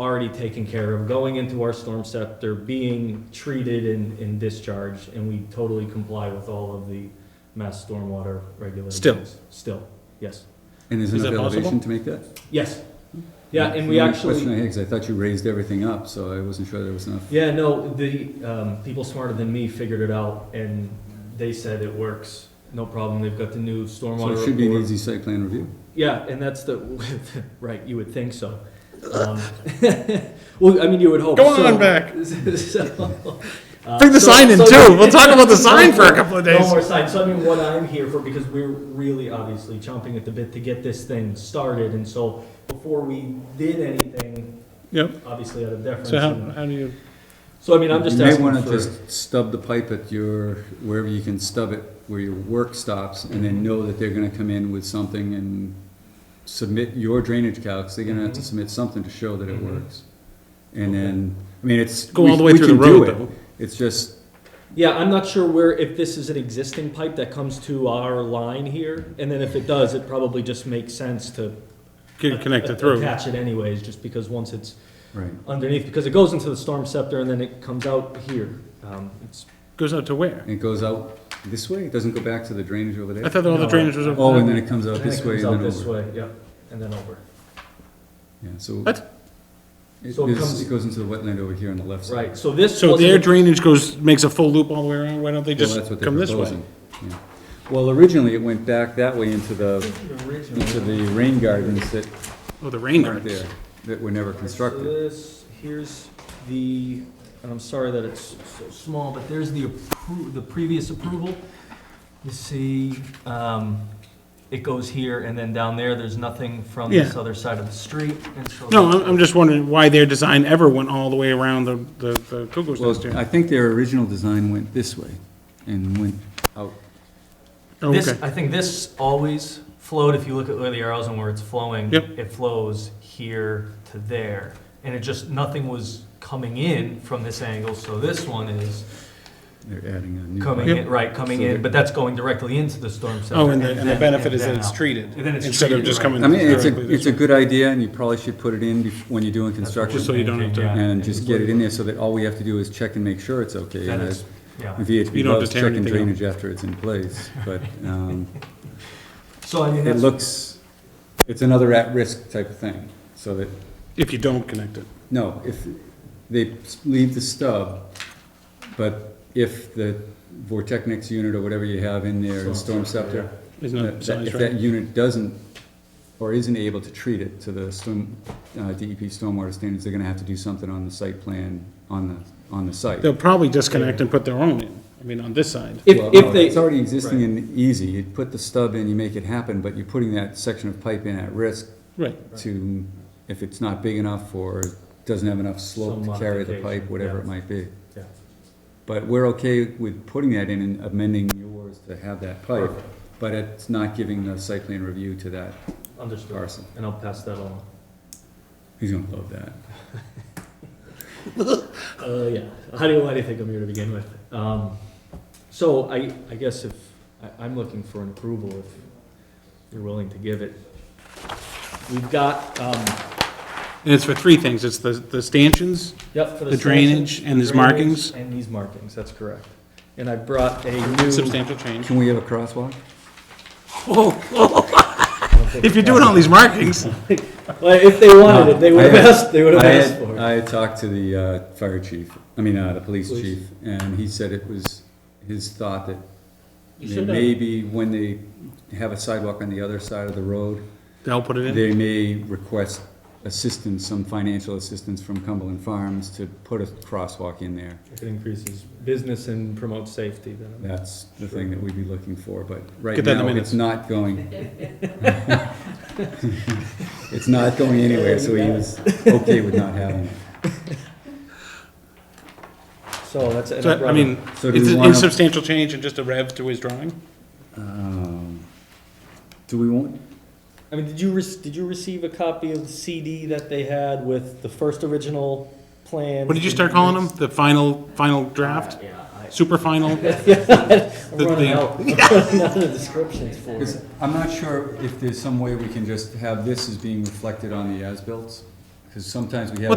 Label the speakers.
Speaker 1: already taken care of, going into our storm scepter, being treated and, and discharged, and we totally comply with all of the mass stormwater regulations.
Speaker 2: Still.
Speaker 1: Still, yes,
Speaker 3: And there's
Speaker 2: Is
Speaker 3: enough
Speaker 2: that possible?
Speaker 3: elevation to make that?
Speaker 1: yes. Yeah, and we
Speaker 3: My Question I
Speaker 1: actually,
Speaker 3: had, 'cause I thought you raised everything up, so I wasn't sure there was enough.
Speaker 1: yeah, no, the, um, people smarter than me figured it out, and they said it works, no problem, they've got the new
Speaker 3: So
Speaker 1: stormwater
Speaker 3: it should be an
Speaker 1: report.
Speaker 3: easy site plan review.
Speaker 1: Yeah, and that's the, right, you would think so. Um, Well, I mean, you would hope.
Speaker 2: Go on
Speaker 1: so-
Speaker 2: back.
Speaker 1: so, uh,
Speaker 2: Bring the
Speaker 1: so-
Speaker 2: sign in
Speaker 1: so-
Speaker 2: too. We'll talk about the sign for a couple of
Speaker 1: No
Speaker 2: days.
Speaker 1: more signs. So I mean, what I'm here for, because we're really obviously chomping at the bit to get this thing started, and so before we did anything,
Speaker 2: Yep.
Speaker 1: obviously out of deference.
Speaker 2: So how,
Speaker 1: and-
Speaker 2: how do you,
Speaker 1: So I mean, I'm just
Speaker 3: You may
Speaker 1: asking
Speaker 3: wanna
Speaker 1: for,
Speaker 3: just stub the pipe at your, wherever you can stub it, where your work stops, and then know that they're gonna come in with something and submit your drainage calcs, they're gonna have to
Speaker 1: Mhm.
Speaker 3: submit something to show that it
Speaker 1: Mhm.
Speaker 3: works. And
Speaker 1: Okay.
Speaker 3: then, I mean, it's.
Speaker 2: go
Speaker 3: we-
Speaker 2: all the way
Speaker 3: we
Speaker 2: through the
Speaker 3: can do
Speaker 2: road
Speaker 3: it.
Speaker 2: though.
Speaker 3: It's just,
Speaker 1: yeah, I'm not sure where, if this is an existing pipe that comes to our line here, and then if it does, it probably just makes sense to.
Speaker 2: Get
Speaker 1: a-
Speaker 2: connected through.
Speaker 1: Attach it anyways, just because once it's
Speaker 3: right,
Speaker 1: underneath, because it goes into the storm scepter and then it comes out here. Um, it's,
Speaker 2: Goes out to where?
Speaker 3: And it goes out this way, it doesn't go back to the drainage over
Speaker 2: I
Speaker 3: there?
Speaker 2: thought all the
Speaker 1: No.
Speaker 2: drainage was
Speaker 3: Oh,
Speaker 2: over
Speaker 3: and then
Speaker 2: there.
Speaker 3: it comes out
Speaker 1: and then it
Speaker 3: this way
Speaker 1: comes
Speaker 3: and
Speaker 1: out
Speaker 3: then
Speaker 1: this
Speaker 3: over.
Speaker 1: way, yep, and then over.
Speaker 3: Yeah, so.
Speaker 2: What?
Speaker 3: It
Speaker 1: So it
Speaker 3: is-
Speaker 1: comes-
Speaker 3: it goes into the wetland over here on the left side.
Speaker 1: Right, so this
Speaker 2: So their
Speaker 1: wasn't,
Speaker 2: drainage goes, makes a full loop all the way around. Why don't they
Speaker 3: Well,
Speaker 2: just
Speaker 3: that's what they're
Speaker 2: come this way?
Speaker 3: proposing. Yeah. Well, originally, it went back that way into the, into the rain gardens that
Speaker 2: Oh, the rain
Speaker 3: aren't
Speaker 2: gardens.
Speaker 3: there, that were never
Speaker 1: so
Speaker 3: constructed.
Speaker 1: this, here's the, and I'm sorry that it's so small, but there's the appro, the previous approval. You see, um, it goes here and then down there, there's nothing from this
Speaker 2: Yeah.
Speaker 1: other side of the street, and so.
Speaker 2: No, I'm, I'm just wondering why their design ever went all the way around the, the, the Kugel's nest
Speaker 3: Well,
Speaker 2: here.
Speaker 3: I think their original design went this way and went out.
Speaker 2: Oh,
Speaker 1: This,
Speaker 2: okay.
Speaker 1: I think this always flowed, if you look at where the arrows and where it's flowing.
Speaker 2: Yep.
Speaker 1: It flows here to there, and it just, nothing was coming in from this angle, so this one is
Speaker 3: They're adding a new.
Speaker 1: coming
Speaker 2: Yep.
Speaker 1: in, right, coming
Speaker 3: So
Speaker 1: in,
Speaker 3: there-
Speaker 1: but that's going directly into the storm center.
Speaker 2: Oh, and the, and the
Speaker 1: then-
Speaker 2: benefit
Speaker 1: and
Speaker 2: is that
Speaker 1: then
Speaker 2: it's
Speaker 1: out.
Speaker 2: treated.
Speaker 1: And then it's
Speaker 2: Instead of
Speaker 1: treated,
Speaker 2: just
Speaker 1: right.
Speaker 2: coming
Speaker 3: I mean, it's
Speaker 2: directly
Speaker 3: a,
Speaker 2: this
Speaker 3: it's a
Speaker 2: way.
Speaker 3: good idea, and you probably should put it in bef- when you're doing
Speaker 1: That's what
Speaker 3: construction.
Speaker 1: we're
Speaker 2: Just so you don't have to-
Speaker 1: thinking, yeah.
Speaker 3: And just get it in there so that all we have to do is check and make sure it's okay.
Speaker 1: That
Speaker 3: And I-
Speaker 1: is, yeah,
Speaker 3: VHB
Speaker 2: You don't have
Speaker 3: loves
Speaker 2: to tear
Speaker 3: checking
Speaker 2: anything up.
Speaker 3: drainage after it's in place, but, um,
Speaker 1: so I mean,
Speaker 3: it
Speaker 1: that's,
Speaker 3: looks, it's another at-risk type of thing, so that
Speaker 2: If you don't connect it.
Speaker 3: No, if, they leave the stub, but if the Vortechnics unit or whatever you have in there, the storm scepter,
Speaker 2: There's no
Speaker 3: that- that-
Speaker 2: signs,
Speaker 3: if
Speaker 2: right?
Speaker 3: that unit doesn't, or isn't able to treat it to the storm, uh, DEP stormwater standards, they're gonna have to do something on the site plan, on the, on the site.
Speaker 2: They'll probably disconnect and put their own in, I mean, on this side.
Speaker 1: if,
Speaker 3: Well, no,
Speaker 1: if they,
Speaker 3: It's already existing and easy, you put the stub in, you make it happen, but you're putting that section of pipe in at risk
Speaker 2: Right,
Speaker 3: to, if it's not big enough or doesn't have enough slope
Speaker 1: Some
Speaker 3: to carry the
Speaker 1: modification,
Speaker 3: pipe, whatever
Speaker 1: yeah.
Speaker 3: it might be.
Speaker 1: Yeah.
Speaker 3: But we're okay with putting that in and amending yours to have that pipe,
Speaker 1: Perfect.
Speaker 3: but it's not giving the site plan review to that
Speaker 1: understood,
Speaker 3: parcel.
Speaker 1: and I'll pass that on.
Speaker 3: He's gonna love that.
Speaker 1: Uh, yeah, how do you, why do you think I'm here to begin with? Um, so I, I guess if, I, I'm looking for an approval if you're willing to give it. We've got, um,
Speaker 2: and it's for three things, it's the, the stanchions,
Speaker 1: yep, for the.
Speaker 2: The drainage and these
Speaker 1: drainage
Speaker 2: markings?
Speaker 1: And these markings, that's correct. And I brought a new.
Speaker 2: substantial change.
Speaker 3: Can we have a crosswalk? Oh.
Speaker 2: If you're doing all these markings,
Speaker 1: Well, if they wanted it, Uh, they would have
Speaker 3: I had-
Speaker 1: asked, they would have
Speaker 3: I
Speaker 1: asked
Speaker 3: had,
Speaker 1: for it.
Speaker 3: I had talked to the, uh, fire chief, I mean, uh, the police
Speaker 1: Police.
Speaker 3: chief, and he said it was his thought that
Speaker 1: You should have.
Speaker 3: maybe when they have a sidewalk on the other side of the road,
Speaker 2: they'll put it in.
Speaker 3: They may request assistance, some financial assistance from Cumberland Farms to put a crosswalk in there.
Speaker 1: If it increases business and promotes safety, then. I'm-
Speaker 3: That's the thing that we'd be looking for, but right
Speaker 2: Get that in the
Speaker 3: now,
Speaker 2: minutes.
Speaker 3: it's not going. It's not going anywhere, so he was okay with not having it.
Speaker 1: So that's. and
Speaker 2: So,
Speaker 1: brought
Speaker 2: I
Speaker 1: a-
Speaker 2: mean,
Speaker 3: So do
Speaker 2: it's
Speaker 3: we
Speaker 2: an
Speaker 3: wanna-
Speaker 2: insubstantial change and just a rev to his drawing?
Speaker 3: Um, Do we want,
Speaker 1: I mean, did you, rec- did you receive a copy of the CD that they had with the first original plan?
Speaker 2: What did you start calling them? The final, final draft?
Speaker 1: Yeah, I-
Speaker 2: Super final?
Speaker 1: I'm
Speaker 2: The
Speaker 1: running
Speaker 2: thing.
Speaker 1: out, I'm running out of descriptions for
Speaker 3: because
Speaker 1: it.
Speaker 3: I'm not sure if there's some way we can just have this as being reflected on the as-bills, because sometimes we have